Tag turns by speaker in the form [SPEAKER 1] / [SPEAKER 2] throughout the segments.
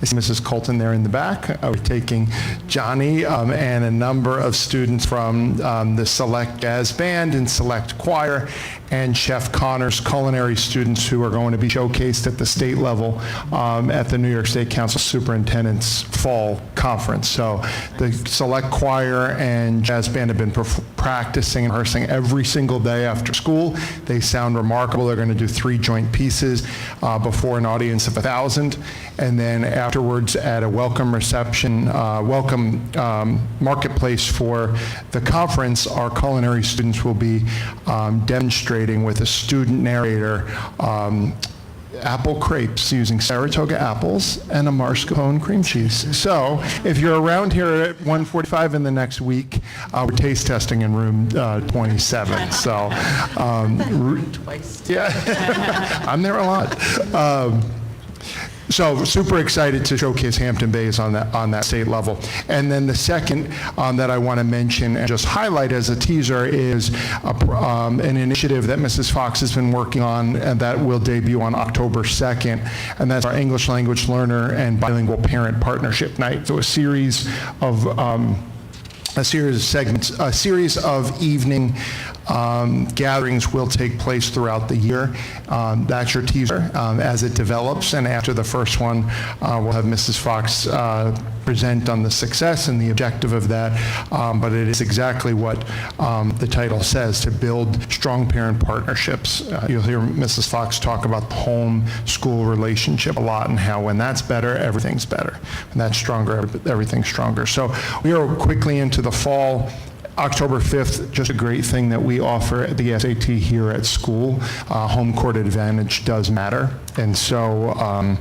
[SPEAKER 1] I see Mrs. Colton there in the back. Uh, We're taking Johnny um, and a number of students from um, the Select Jazz Band and Select Choir and Chef Connors culinary students who are going to be showcased at the state level um, at the New York State Council Superintendent's Fall Conference. So the Select Choir and Jazz Band have been perf- practicing and rehearsing every single day after school. They sound remarkable. They're going to do three joint pieces uh, before an audience of 1,000, and then afterwards at a welcome reception, uh, welcome um, marketplace for the conference, our culinary students will be um, demonstrating with a student narrator um, apple crepes using Saratoga apples and a mascarpone cream cheese. So if you're around here at 1:45 in the next week, uh, we're taste testing in room uh, 27, so. um, Twice. Yeah, I'm there a lot. Um, so super excited to showcase Hampton Bays on that, on that state level. And then the second um, that I want to mention and just highlight as a teaser is a pr- um, an initiative that Mrs. Fox has been working on and that will debut on October 2nd. And that's our English Language Learner and Bilingual Parent Partnership Night. So a series of um, a series of segments, a series of evening um, gatherings will take place throughout the year. Um, That's your teaser um, as it develops, and after the first one, uh, we'll have Mrs. Fox uh, present on the success and the objective of that, Um, but it is exactly what um, the title says, to build strong parent partnerships. Uh, You'll hear Mrs. Fox talk about the home-school relationship a lot and how when that's better, everything's better. When that's stronger, everyb- everything's stronger. So we are quickly into the fall. October 5th, just a great thing that we offer at the SAT here at school. Uh, Home court advantage does matter, and so um,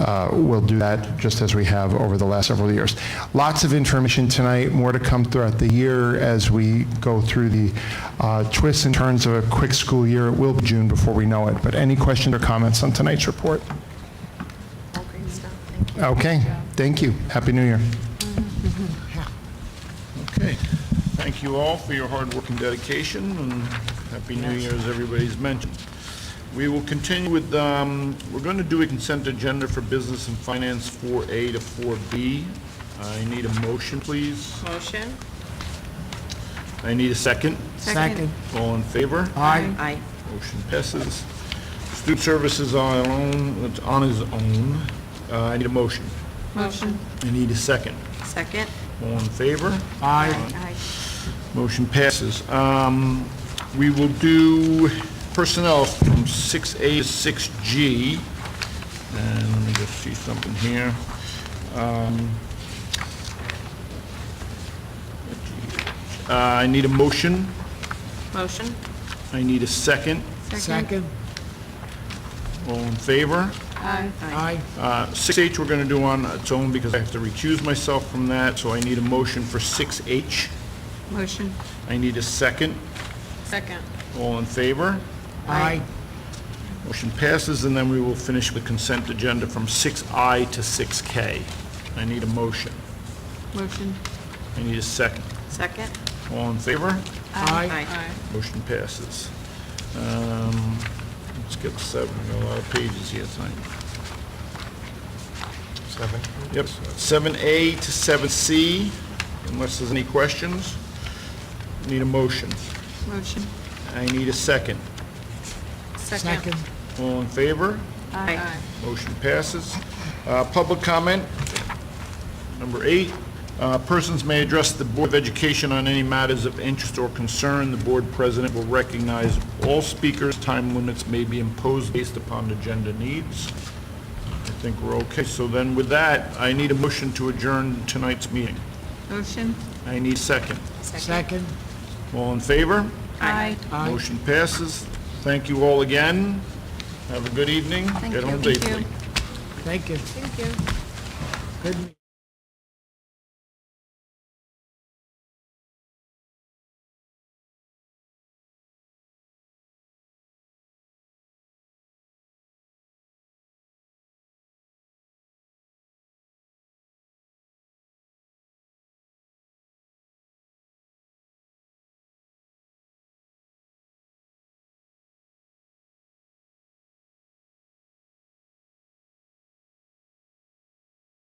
[SPEAKER 1] uh, we'll do that just as we have over the last several years. Lots of information tonight, more to come throughout the year as we go through the uh, twists and turns of a quick school year. It will be June before we know it, but any questions or comments on tonight's report? Okay, thank you. Happy New Year.
[SPEAKER 2] Okay. Thank you all for your hard work and dedication, and Happy New Year, as everybody's mentioned. We will continue with, um, we're going to do a consent agenda for business and finance 4A to 4B. I need a motion, please.
[SPEAKER 3] Motion?
[SPEAKER 2] I need a second.
[SPEAKER 4] Second.
[SPEAKER 2] All in favor?
[SPEAKER 4] Aye.
[SPEAKER 3] Aye.
[SPEAKER 2] Motion passes. Student services on our own, it's on his own. Uh, I need a motion.
[SPEAKER 3] Motion.
[SPEAKER 2] I need a second.
[SPEAKER 3] Second?
[SPEAKER 2] All in favor?
[SPEAKER 4] Aye.
[SPEAKER 3] Aye.
[SPEAKER 2] Motion passes. Um, We will do personnel from 6A to 6G. And let me just see something here. Um, uh, I need a motion.
[SPEAKER 3] Motion?
[SPEAKER 2] I need a second.
[SPEAKER 4] Second.
[SPEAKER 2] All in favor?
[SPEAKER 3] Aye. Aye.
[SPEAKER 4] Aye.
[SPEAKER 2] Uh, 6H we're going to do on its own because I have to recuse myself from that, so I need a motion for 6H.
[SPEAKER 3] Motion?
[SPEAKER 2] I need a second.
[SPEAKER 3] Second.
[SPEAKER 2] All in favor?
[SPEAKER 4] Aye.
[SPEAKER 2] Motion passes, and then we will finish the consent agenda from 6I to 6K. I need a motion.
[SPEAKER 3] Motion?
[SPEAKER 2] I need a second.
[SPEAKER 3] Second?
[SPEAKER 2] All in favor?
[SPEAKER 4] Aye.
[SPEAKER 3] Aye.
[SPEAKER 2] Motion passes. Um, Let's get to seven, we got a lot of pages here tonight. Seven? Yep, 7A to 7C, unless there's any questions. Need a motion.
[SPEAKER 3] Motion?
[SPEAKER 2] I need a second.
[SPEAKER 4] Second.
[SPEAKER 2] All in favor?
[SPEAKER 3] Aye.
[SPEAKER 2] Motion passes. Uh, Public comment, number eight. uh, Persons may address the Board of Education on any matters of interest or concern. The Board President will recognize all speakers. Time limits may be imposed based upon agenda needs. I think we're okay. So then with that, I need a motion to adjourn tonight's meeting.
[SPEAKER 3] Motion?
[SPEAKER 2] I need a second.
[SPEAKER 4] Second.
[SPEAKER 2] All in favor?
[SPEAKER 3] Aye.
[SPEAKER 4] Aye.
[SPEAKER 2] Motion passes. Thank you all again. Have a good evening.
[SPEAKER 3] Thank
[SPEAKER 2] Get
[SPEAKER 3] you.
[SPEAKER 2] home
[SPEAKER 3] Thank
[SPEAKER 2] safely.
[SPEAKER 3] you.
[SPEAKER 4] Thank you.
[SPEAKER 3] Thank you.
[SPEAKER 4] Good.